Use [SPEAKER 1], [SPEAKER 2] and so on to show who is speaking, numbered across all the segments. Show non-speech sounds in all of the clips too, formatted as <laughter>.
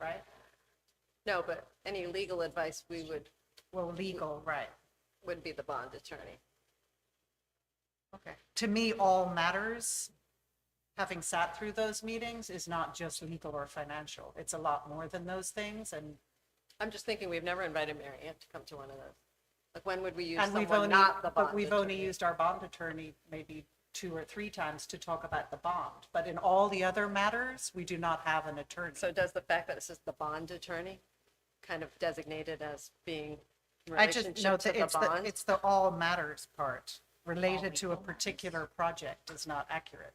[SPEAKER 1] right? No, but any legal advice we would,
[SPEAKER 2] Well, legal, right.
[SPEAKER 1] would be the bond attorney.
[SPEAKER 2] Okay. To me, all matters, having sat through those meetings, is not just legal or financial. It's a lot more than those things and,
[SPEAKER 1] I'm just thinking, we've never invited Mary Ann to come to one of those. Like, when would we use
[SPEAKER 2] and we've
[SPEAKER 1] someone
[SPEAKER 2] only,
[SPEAKER 1] not the bond
[SPEAKER 2] but we've only
[SPEAKER 1] attorney?
[SPEAKER 2] used our bond attorney maybe two or three times to talk about the bond. But in all the other matters, we do not have an attorney.
[SPEAKER 1] So does the fact that it says the bond attorney kind of designated as being in
[SPEAKER 2] I just know
[SPEAKER 1] relationship to
[SPEAKER 2] that
[SPEAKER 1] the
[SPEAKER 2] it's the,
[SPEAKER 1] bond?
[SPEAKER 2] it's the all matters part related to a particular project is not accurate.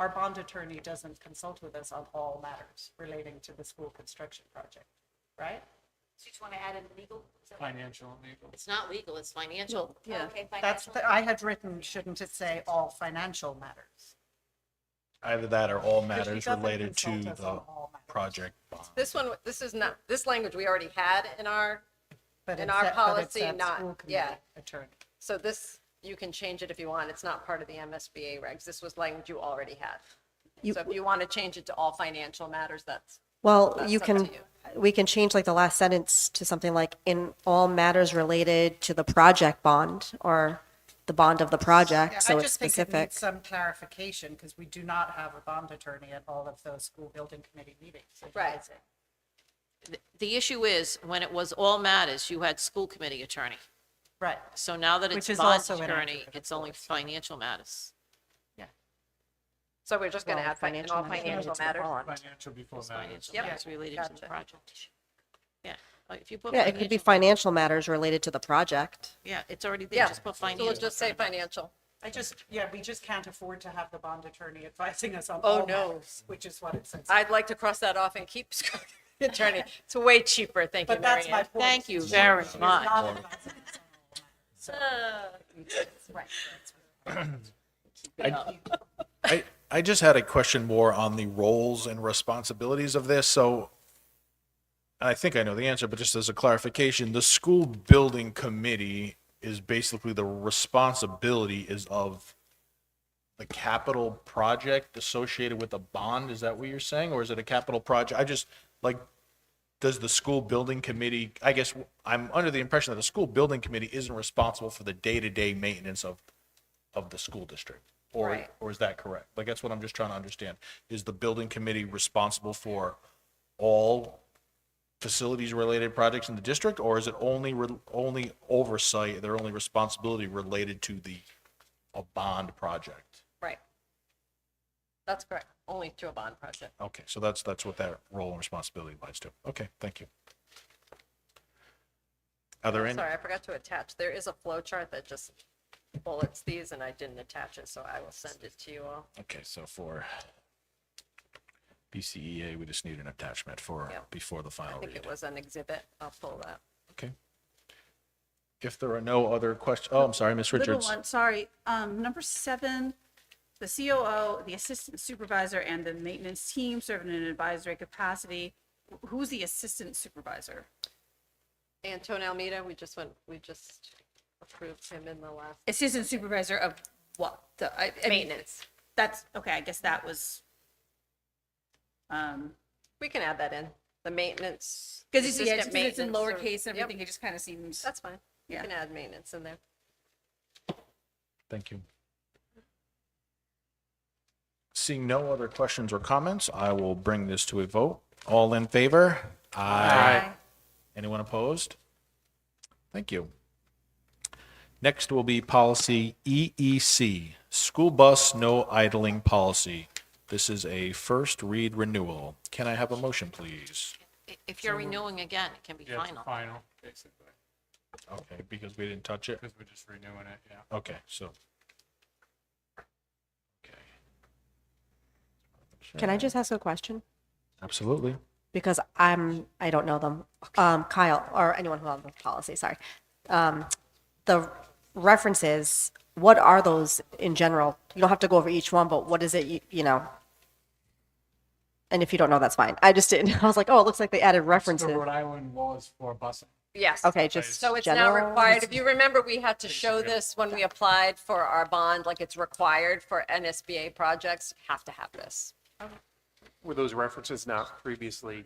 [SPEAKER 2] Our bond attorney doesn't consult with us on all matters relating to the school construction project, right?
[SPEAKER 3] So you just want to add in legal? Is that-
[SPEAKER 4] financial and legal.
[SPEAKER 5] It's not legal, it's financial.
[SPEAKER 1] Yeah,
[SPEAKER 3] Okay,
[SPEAKER 2] That's,
[SPEAKER 3] financial.
[SPEAKER 2] the- I had written, shouldn't it say all financial matters?
[SPEAKER 6] Either that or all
[SPEAKER 2] Because she
[SPEAKER 6] matters
[SPEAKER 2] doesn't
[SPEAKER 6] related to
[SPEAKER 2] consult us on
[SPEAKER 6] the
[SPEAKER 2] all matters.
[SPEAKER 6] project bond.
[SPEAKER 1] this one, this is not, this language we already had in our,
[SPEAKER 2] But
[SPEAKER 1] In
[SPEAKER 2] it's
[SPEAKER 1] our
[SPEAKER 2] that- but it's
[SPEAKER 1] policy,
[SPEAKER 2] that
[SPEAKER 1] not-
[SPEAKER 2] school committee
[SPEAKER 1] yeah.
[SPEAKER 2] Attorney.
[SPEAKER 1] so this, you can change it if you want. It's not part of the MSBA regs. This was language you already had.
[SPEAKER 7] You-
[SPEAKER 1] So if you want to change it to all financial matters, that's
[SPEAKER 7] Well,
[SPEAKER 1] That's
[SPEAKER 7] you
[SPEAKER 1] up
[SPEAKER 7] can,
[SPEAKER 1] to you.
[SPEAKER 7] we can change like the last sentence to something like, in all matters related to the project bond or the bond of the
[SPEAKER 2] Yeah,
[SPEAKER 7] project, so
[SPEAKER 2] I
[SPEAKER 7] it's
[SPEAKER 2] just think it
[SPEAKER 7] specific.
[SPEAKER 2] needs some clarification because we do not have a bond attorney at all of those school building committee meetings.
[SPEAKER 1] Right.
[SPEAKER 2] advising.
[SPEAKER 5] The issue is, when it was all matters, you had school committee attorney.
[SPEAKER 2] Right.
[SPEAKER 5] So now that
[SPEAKER 2] Which
[SPEAKER 5] it's
[SPEAKER 2] is
[SPEAKER 5] bond
[SPEAKER 2] also
[SPEAKER 5] attorney,
[SPEAKER 2] inaccurate, of
[SPEAKER 5] it's only financial matters.
[SPEAKER 1] So we're just going to
[SPEAKER 7] Well,
[SPEAKER 1] add fin- in all financial
[SPEAKER 7] related to the
[SPEAKER 1] matters?
[SPEAKER 7] bond.
[SPEAKER 4] Financial before
[SPEAKER 5] It's
[SPEAKER 4] matters.
[SPEAKER 5] Financial
[SPEAKER 1] Yep.
[SPEAKER 5] matters related to the
[SPEAKER 1] Gotcha.
[SPEAKER 5] project. Yeah, Uh, if you put.
[SPEAKER 7] Yeah, it could be
[SPEAKER 5] financial-
[SPEAKER 7] financial matters related to the project.
[SPEAKER 5] Yeah, it's already there,
[SPEAKER 1] Yeah,
[SPEAKER 5] just put
[SPEAKER 1] so we'll
[SPEAKER 5] financial.
[SPEAKER 1] just say financial.
[SPEAKER 2] I just, yeah, we just can't afford to have the bond attorney advising us on
[SPEAKER 1] Oh,
[SPEAKER 2] all
[SPEAKER 1] no.
[SPEAKER 2] matters, which is what it says.
[SPEAKER 1] I'd like to cross that off and keep <laughs> school attorney. It's way cheaper, thank you,
[SPEAKER 2] But
[SPEAKER 1] Mary
[SPEAKER 2] that's my
[SPEAKER 1] Ann.
[SPEAKER 2] point.
[SPEAKER 5] Thank you
[SPEAKER 2] She's
[SPEAKER 5] very much.
[SPEAKER 2] not advising us on all matters.
[SPEAKER 6] I, I, I just had a question more on the roles and responsibilities of this, so and I think I know the answer, but just as a clarification, the school building committee is basically the responsibility is of the capital project associated with a bond, is that what you're saying, or is it a capital project? I just, like, does the school building committee, I guess, I'm under the impression that the school building committee isn't responsible for the day-to-day maintenance of of the school district? Or,
[SPEAKER 1] Right.
[SPEAKER 6] or is that correct? Like, that's what I'm just trying to understand. Is the building committee responsible for all facilities-related projects in the district? Or is it only, re- only oversight, their only responsibility related to the, a bond project?
[SPEAKER 1] Right. That's correct, only to a bond project.
[SPEAKER 6] Okay, so that's, that's what that role and responsibility lies to. Okay, thank you. Are there any?
[SPEAKER 1] Sorry, I forgot to attach. There is a flow chart that just bullets these and I didn't attach it, so I will send it to you all.
[SPEAKER 6] Okay, so for BCEA, we just need an attachment for,
[SPEAKER 1] Yep.
[SPEAKER 6] before the
[SPEAKER 1] I
[SPEAKER 6] final
[SPEAKER 1] think
[SPEAKER 6] read.
[SPEAKER 1] it was an exhibit. I'll pull that.
[SPEAKER 6] Okay. If there are no other questions, oh, I'm sorry, Miss
[SPEAKER 8] Little
[SPEAKER 6] Richards.
[SPEAKER 8] one, sorry. Um, number seven, the COO, the assistant supervisor and the maintenance team serve in an advisory capacity. Wh- Who's the assistant supervisor?
[SPEAKER 1] Anton Almeida, we just went, we just approved him in the last.
[SPEAKER 8] Assistant supervisor of what? The, I, I mean, that's, okay, I guess that was. Um,
[SPEAKER 1] We can add that in, the maintenance.
[SPEAKER 8] because it's, yeah,
[SPEAKER 1] assistant
[SPEAKER 8] it's 'cause it's in
[SPEAKER 1] maintenance or-
[SPEAKER 8] lowercase and
[SPEAKER 1] Yep,
[SPEAKER 8] everything, it just kind of seems,
[SPEAKER 1] That's fine. You
[SPEAKER 8] Yeah.
[SPEAKER 1] can add maintenance in there.
[SPEAKER 6] Thank you. Seeing no other questions or comments, I will bring this to a vote. All in favor? Aye. Anyone opposed? Thank you. Next will be policy EEC, school bus no idling policy. This is a first read renewal. Can I have a motion, please?
[SPEAKER 5] I- If you're renewing again, it can be
[SPEAKER 4] Yeah, it's
[SPEAKER 5] final.
[SPEAKER 4] final, basically,
[SPEAKER 6] Okay, because we didn't touch it.
[SPEAKER 4] because we're just renewing it, yeah.
[SPEAKER 6] Okay, so. Okay.
[SPEAKER 7] Can I just ask a question?
[SPEAKER 6] Absolutely.
[SPEAKER 7] Because I'm, I don't know them. Um, Kyle, or anyone who owns the policy, sorry. Um, the references, what are those in general? You don't have to go over each one, but what is it, you, you know? And if you don't know, that's fine. I just didn't, <laughs> I was like, oh, it looks like they added
[SPEAKER 4] So
[SPEAKER 7] references.
[SPEAKER 4] Rhode Island laws for busing.
[SPEAKER 1] Yes.
[SPEAKER 7] Okay, just
[SPEAKER 1] So it's now
[SPEAKER 7] general-
[SPEAKER 1] required. If you remember, we had to show this when we applied for our bond, like it's required for NSBA projects, have to have this.
[SPEAKER 9] Were those references not previously